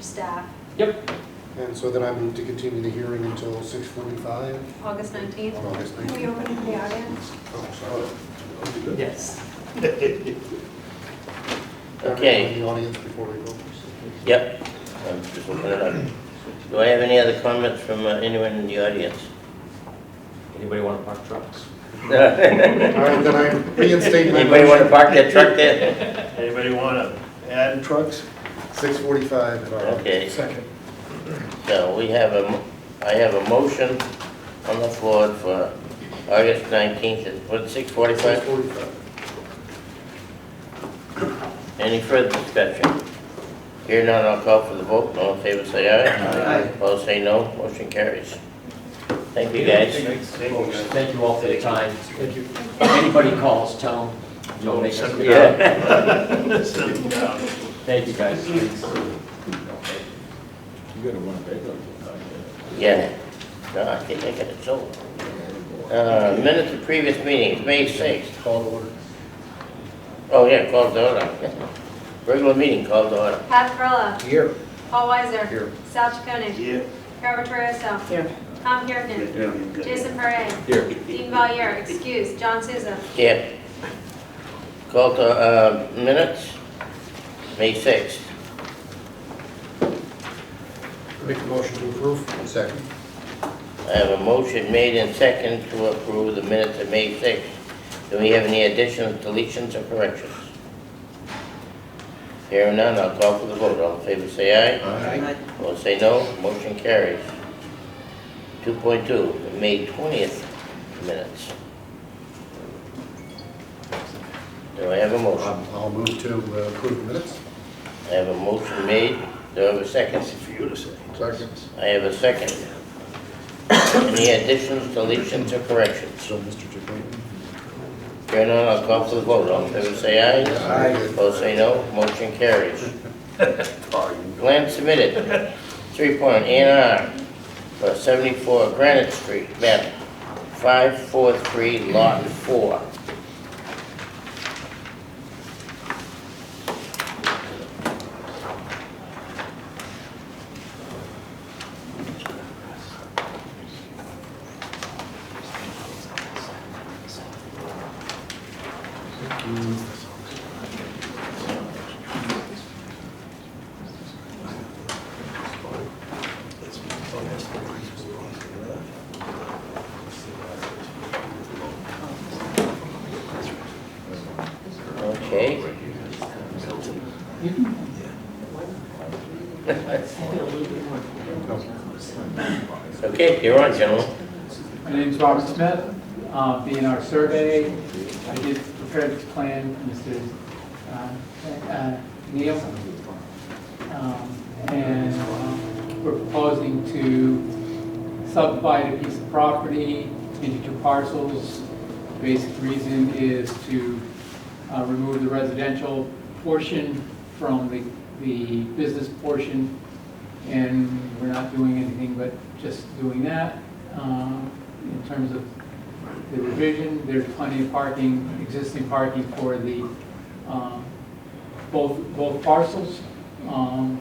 staff, Yep, And so then I move to continue the hearing until six forty-five August 19th. on August Can we nineteenth. open the audience? Oh, yes. In Okay, the audience before we go. yep. I'm just looking it up. Do I have any other comments from uh, anyone in the audience? Anybody want to park trucks? All right, then I reinstate my Anybody want to motion, park their truck there? Anybody want to add trucks? six forty-five. Okay. Second. So we have a, mo- I have a motion on the floor for August 19th at, what, Six 6:45? forty-five. Any further discussion? Here none, I'll call for the vote. All in favor, say aye. Aye. Opposed, say no. Motion carries. Thank you, guys. Thank you, guys. Thank you all for your time. Thank you. If anybody calls, tell them you'll make us. Yeah. Send them down. Thank you, guys. You gotta run a paper. Yeah, no, I think I got it sold. Uh, Minutes of previous meetings, May 6th. Call to order. Oh, yeah, called to order. Regular meeting called to order. Pat Perla, Here. Paul Weiser. Here. Sal Chaconi. Yeah. Carol Torriello. Here. Tom Kirkin. Jason Parra. Here. Dean Valier, excuse, John Souza. Yeah. Called to, uh, minutes, May 6th. Make the motion to approve. Second. I have a motion made and second to approve the minutes of May 6th. Do we have any additions, deletions, or corrections? Here and none, I'll call for the vote. All in favor, say aye. Opposed, say no. Motion carries. 2.2, the May 20th minutes. Do I have a motion? Um, I'll move to uh, approve the minutes. I have a motion made. Do I have a second? That's for you to say. Second. I have a second. Any additions, deletions, or corrections? So, Mr. Chacon. Here none, I'll call for the vote. All in favor, say aye. Aye. Opposed, say no. Motion carries. Plan submitted, three point, A and R, for seventy-four Granite Street, map five four three, lot four. Okay. Okay, you're on, gentlemen. My name's Robert Smith, uh, B&R Survey. I did prepare this plan, Mr. uh, uh, Neal. Um, And um, we're proposing to subdivide a piece of property into two parcels. Basic reason is to uh, remove the residential portion from the the business portion and we're not doing anything but just doing that. Um, In terms of the revision, there's plenty of parking, existing parking for the, um, both, both parcels. Um,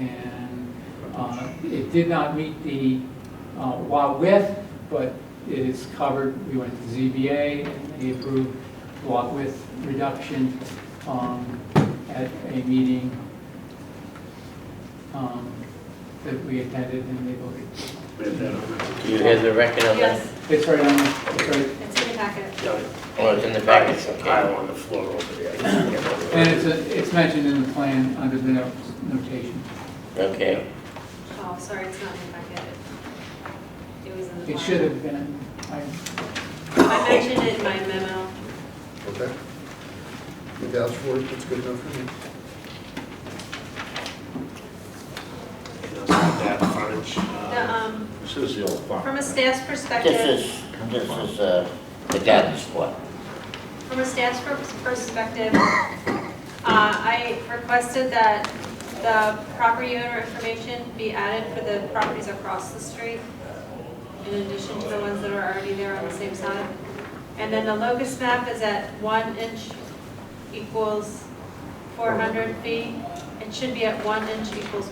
And uh, it did not meet the uh, lot width, but it is covered, we went to ZBA, and they approved lot width reduction um, at a meeting um, that we attended and they voted. Do you have the record on that? Yes, It's right on, it's right, it's in the packet. Oh, it's in the package, Pile okay. on the floor over there. and it's, a- it's mentioned in the plan under the no- notation. Okay, Oh, sorry, it's not in the packet. It was in the. It file. should have been, I- I mentioned it in my memo. Okay. You vouch for it, that's good enough for me. That frontage. The, uh, um, This is the old farm. From a staff's perspective. this is, this is, uh, the guidance squad. From a staff's per- perspective, uh, I requested that the property owner information be added for the properties across the street, in addition to the ones that are already there on the same side. And then the locust map is at one inch equals 400 feet, and it should be at one inch equals